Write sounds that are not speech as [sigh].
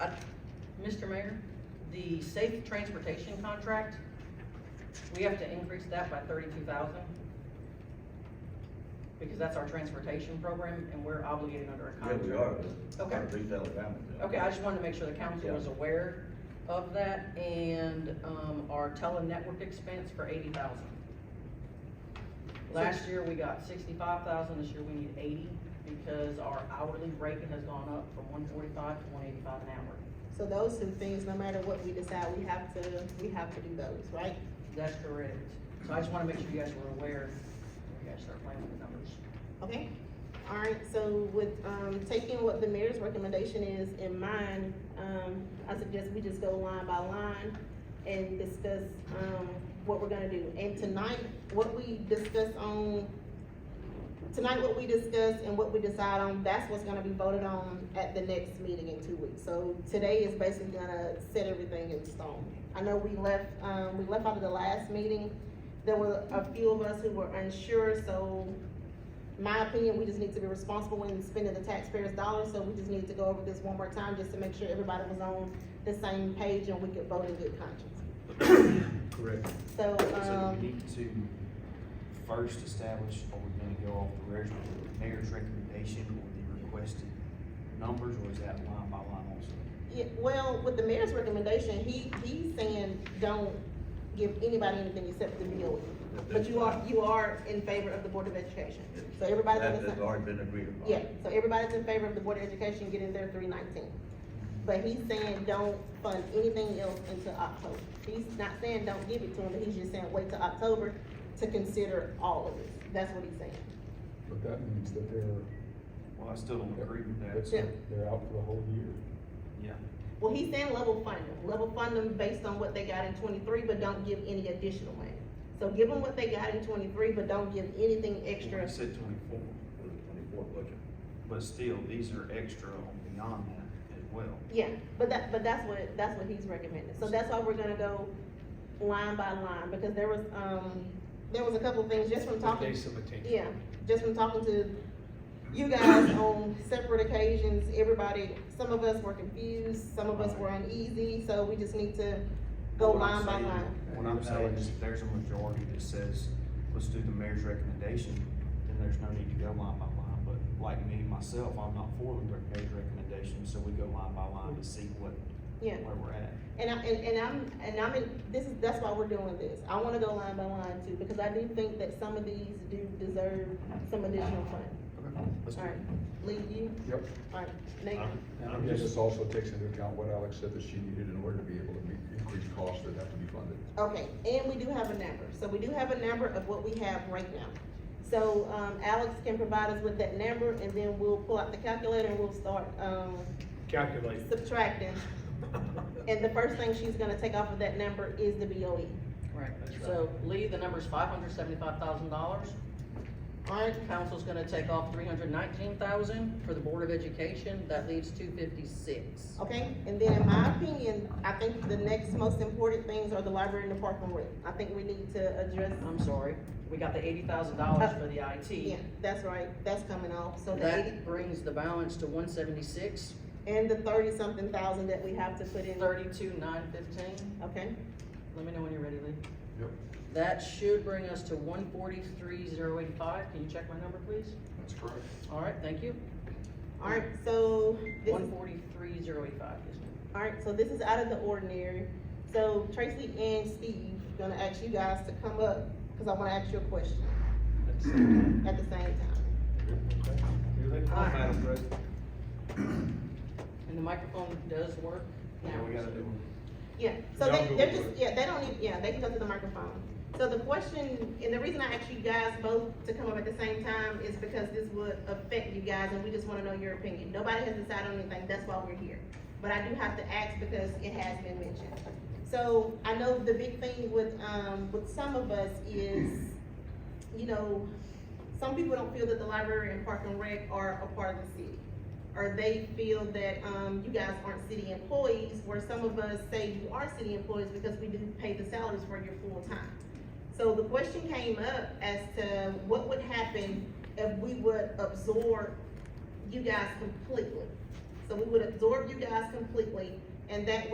Mr. Mayor, the safe transportation contract, we have to increase that by thirty-two thousand. Because that's our transportation program and we're obligated under a Yeah, contract. we are. Okay. Three thousand families. Okay, I just wanted to make sure the council was Yeah. aware of that and, um, our tele-network expense for eighty thousand. Last year, we got sixty-five thousand, this year we need eighty because our hourly rate has gone up from one forty-five to one eighty-five an hour. So those two things, no matter what we decide, we have to, we have to do those, right? That's correct. So I just wanna make sure you guys were aware, when you guys start playing with the numbers. Okay? All right, so with, um, taking what the mayor's recommendation is in mind, um, I suggest we just go line by line and discuss, um, what we're gonna do. And tonight, what we discuss on, tonight what we discuss and what we decide on, that's what's gonna be voted on at the next meeting in two weeks. So today is basically gonna set everything in stone. I know we left, um, we left out of the last meeting, there were a few of us who were unsure, so my opinion, we just need to be responsible in spending the taxpayers' dollars, so we just need to go over this one more time, just to make sure everybody was on the same page and we could vote in good conscience. Correct. So, So we um, need to first establish, are we gonna go off the res- mayor's recommendation or the requested numbers, or is that line by line also? yeah, well, with the mayor's recommendation, he, he's saying, don't give anybody anything except the meal. But you are, you are in favor of the Board of Education, so everybody That that's. has already been agreed upon. Yeah, so everybody's in favor of the Board of Education getting their three nineteen. But he's saying don't fund anything else until October. He's not saying don't give it to them, he's just saying wait till October to consider all of it. That's what he's saying. But that means that they're, Well, I still don't agree with that. Yeah. that's, they're out for the whole year. Yeah. Well, he's saying level fund them, level fund them based on what they got in twenty-three, but don't give any additional money. So give them what they got in twenty-three, but don't give anything Well, extra. we said twenty-four, For the twenty-four budget. but still, these are extra on beyond that as well. Yeah, but that, but that's what, that's what he's recommending, so that's why we're gonna go line by line, because there was, um, there was a couple things just from talking. Yeah, just from talking to you guys on separate occasions, everybody, some of us were confused, some of us were uneasy, so we just need to go What I'm Oh, line by saying- line. What I'm saying is if there's a majority that says, let's do the mayor's recommendation, then there's no need to go line by line. But like me, myself, I'm not for the mayor's recommendation, so we go line by line to see what, Yeah, where we're at. and I, and, and I'm, and I'm in, this is, that's why we're doing this, I wanna go line by line too, because I do think that some of these do deserve some additional funding. Let's do Alright, it. Lee, you, Yep. alright, Nate, And I guess this also takes into account what Alex said that she needed in order to be able to meet increased costs that have to be funded. okay, and we do have a number, so we do have a number of what we have right now. So, um, Alex can provide us with that number, and then we'll pull out the calculator and we'll start, um, calculate. subtracting. [laughs] And the first thing she's gonna take off of that number is the E. BOE. Right. So Lee, the number's five hundred seventy-five thousand dollars. Alright, Council's gonna take off three hundred nineteen thousand for the Board of Education, that leaves two fifty-six. okay, and then in my opinion, I think the next most important things are the library and the park and rec. I think we need to address, I'm sorry, we got the eighty thousand dollars for the IT. [laughs] yeah, that's right, that's coming off, so the eighty, That brings the balance to one seventy-six, and the thirty-something thousand that we have to put in, thirty-two, nine fifteen. okay? Let me know when you're ready, Lee. Yep. That should bring us to one forty-three, zero eighty-five. Can you check my number, please? That's correct. All right, thank you. Alright, so this is, One forty-three, zero eighty-five, yes, ma'am. alright, so this is out of the ordinary. So Tracy and Steve, gonna ask you guys to come up, cause I wanna ask you a question at the same time. Madam President. And the microphone does work now. Yeah, we gotta do Yeah, so Y'all they, go they're for just, it. yeah, they don't need, yeah, they can go to the microphone. So the question, and the reason I asked you guys both to come up at the same time is because this would affect you guys and we just wanna know your opinion. Nobody has decided on anything, that's why we're here. But I do have to ask because it has been mentioned. So I know the big thing with, um, with some of us is, you know, some people don't feel that the library and park and rec are a part of the city. Or they feel that, um, you guys aren't city employees, where some of us say you are city employees because we do pay the salaries for your full time. So the question came up as to what would happen if we would absorb you guys completely. So we would absorb you guys completely, and that